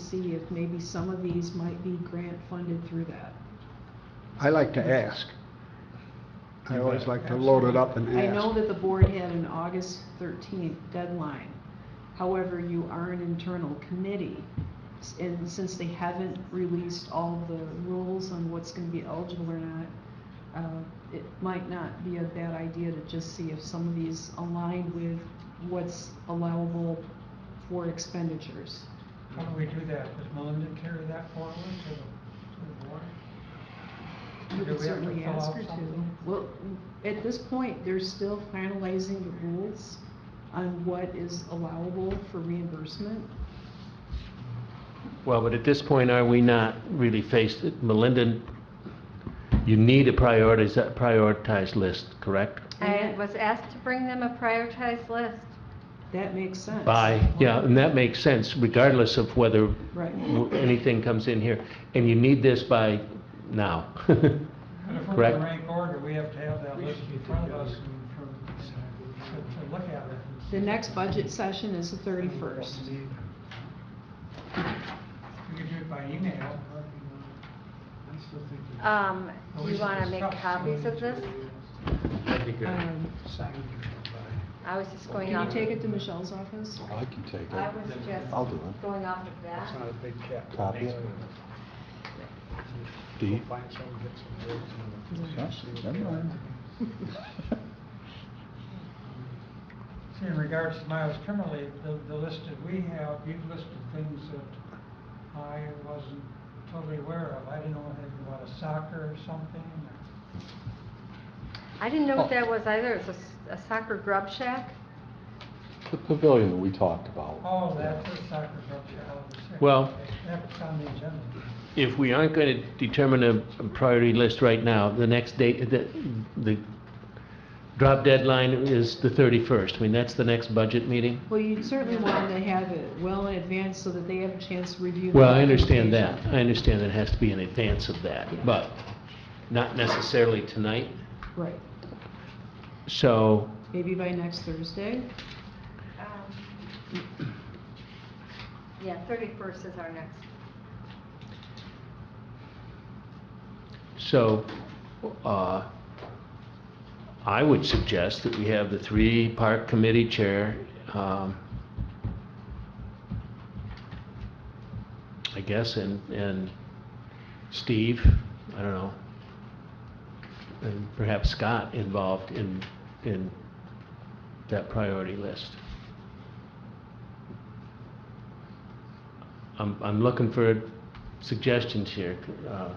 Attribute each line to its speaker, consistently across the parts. Speaker 1: see if maybe some of these might be grant funded through that.
Speaker 2: I like to ask. I
Speaker 3: You
Speaker 2: always
Speaker 3: bet.
Speaker 2: like to load it up and
Speaker 1: I know
Speaker 2: ask.
Speaker 1: that the board had an August thirteenth deadline. However, you are an internal committee. S- And since they haven't released all the rules on what's gonna be eligible or not, uh, it might not be a bad idea to just see if some of these align with what's allowable for expenditures.
Speaker 4: How do we do that? Does Melinda carry that forward to the, to the board?
Speaker 1: You could
Speaker 4: Do we have to
Speaker 1: certainly
Speaker 4: fill
Speaker 1: ask
Speaker 4: out
Speaker 1: her to.
Speaker 4: something?
Speaker 1: Well, at this point, they're still finalizing the rules on what is allowable for reimbursement.
Speaker 3: Well, but at this point, are we not really faced, Melinda, you need a prioritized, prioritized list, correct?
Speaker 1: Yeah.
Speaker 5: I was asked to bring them a prioritized list.
Speaker 1: That makes sense.
Speaker 3: By, yeah, and that makes sense regardless of whether
Speaker 1: Right.
Speaker 3: w- anything comes in here. And you need this by now.
Speaker 4: But if we're
Speaker 3: Correct.
Speaker 4: in rank order, we have to have that list in front of us and for, to, to look at it. and see.
Speaker 1: The next budget session is the thirty-first.
Speaker 4: We could do it by email.
Speaker 5: Um, do
Speaker 4: Well, we
Speaker 5: you
Speaker 4: should
Speaker 5: wanna make
Speaker 4: discuss.
Speaker 5: copies of this?
Speaker 1: Um,
Speaker 5: I was just going
Speaker 1: can
Speaker 5: off.
Speaker 1: you take it to Michelle's office?
Speaker 6: I can take
Speaker 5: I
Speaker 6: it.
Speaker 5: was just
Speaker 6: I'll do it.
Speaker 5: going off of that.
Speaker 6: Copy it. D. Huh? Never mind.
Speaker 4: See, in regards to Miles Kimmerly, the, the list that we have, you've listed things that I wasn't totally aware of. I didn't know anything about a soccer or something.
Speaker 5: I didn't know what that
Speaker 6: Oh.
Speaker 5: was either. It's a s- a soccer grub shack.
Speaker 6: The pavilion that we talked about.
Speaker 4: Oh, that's a soccer club, yeah, I was saying.
Speaker 3: Well-
Speaker 4: That's on the agenda.
Speaker 3: If we aren't going to determine a a priority list right now, the next date, the, the drop deadline is the 31st. I mean, that's the next budget meeting.
Speaker 1: Well, you certainly want to have it well in advance so that they have a chance to review. the
Speaker 3: Well, I understand that.
Speaker 1: documentation.
Speaker 3: I understand that it has to be in advance of that, but not necessarily tonight.
Speaker 1: Right.
Speaker 3: So,
Speaker 1: Maybe by next Thursday?
Speaker 5: Um, Yeah, thirty-first is our next.
Speaker 3: so, uh, I would suggest that we have the three park committee chair, um, I guess, and, and Steve, I don't know, and perhaps Scott involved in, in that priority list. I'm, I'm looking for suggestions here. uh,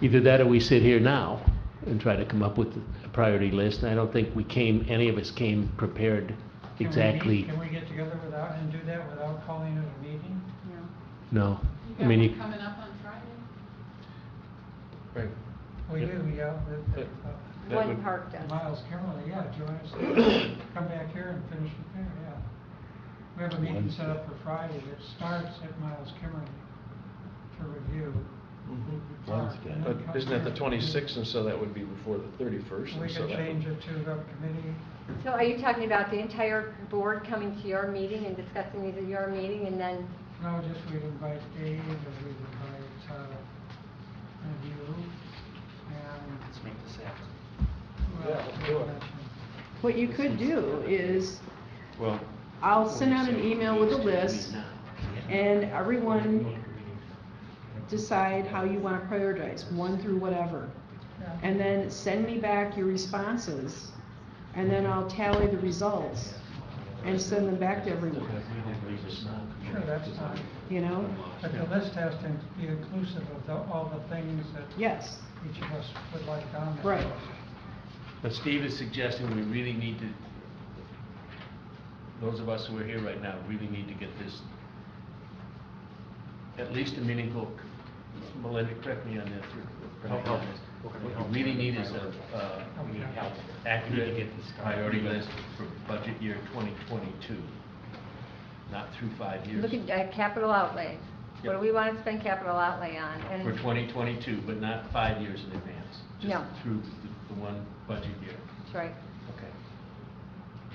Speaker 3: Either that or we sit here now and try to come up with a priority list. And I don't think we came, any of us came prepared
Speaker 4: Can we meet-
Speaker 3: exactly.
Speaker 4: Can we get together without, and do that without calling it a meeting?
Speaker 5: you know.
Speaker 3: No.
Speaker 7: You
Speaker 3: I
Speaker 7: got
Speaker 3: mean,
Speaker 7: one
Speaker 3: you-
Speaker 7: coming up on Friday?
Speaker 4: We
Speaker 3: Yeah.
Speaker 4: do, yeah, with,
Speaker 3: Yeah.
Speaker 4: uh,
Speaker 3: That
Speaker 5: One
Speaker 3: would-
Speaker 5: park does.
Speaker 4: Miles Kimmerly, yeah, join us, come back here and finish it there, yeah. We have a meeting set up for Friday that starts at Miles Kimmerly to review.
Speaker 3: Mm-hmm.
Speaker 6: Wednesday.
Speaker 4: And then
Speaker 8: But
Speaker 4: come
Speaker 8: isn't that the
Speaker 4: here.
Speaker 8: 26th, and so that would be before the 31st?
Speaker 4: We
Speaker 8: and so
Speaker 4: could
Speaker 8: that would-
Speaker 4: change it to the committee.
Speaker 5: So are you talking about the entire board coming to your meeting and discussing these at your meeting and then,
Speaker 4: No, just we'd invite Dave, and we'd invite, uh, and you, and. Let's make this
Speaker 8: Yeah,
Speaker 4: happen.
Speaker 8: let's do it.
Speaker 1: What you could do is,
Speaker 8: Well,
Speaker 1: I'll send out an email with a list and everyone decide how you want to prioritize, one through whatever. And then send me back your responses, and then I'll tally the results and send them back to everyone,
Speaker 4: Sure, that's fine,
Speaker 1: you know?
Speaker 4: but the list has to be inclusive of the, all the things that
Speaker 1: Yes,
Speaker 4: each of us would like on that
Speaker 1: Right.
Speaker 4: list.
Speaker 3: But Steve is suggesting we really need to, those of us who are here right now, really need to get this, at least a meaningful, Melinda, correct me on this. or-
Speaker 8: Help, help.
Speaker 3: What we really need is a, uh, accurate priority list for budget year 2022, not through five years.
Speaker 5: look at uh, capital outlay? What do
Speaker 3: Yep.
Speaker 5: we want to spend capital outlay on?
Speaker 3: For
Speaker 5: And
Speaker 3: 2022, but not five years in advance.
Speaker 5: No.
Speaker 3: Just through the- the one budget year.
Speaker 5: That's right.
Speaker 3: Okay.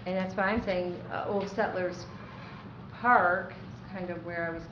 Speaker 5: And that's why I'm saying uh, Old Settlers Park is kind of where I was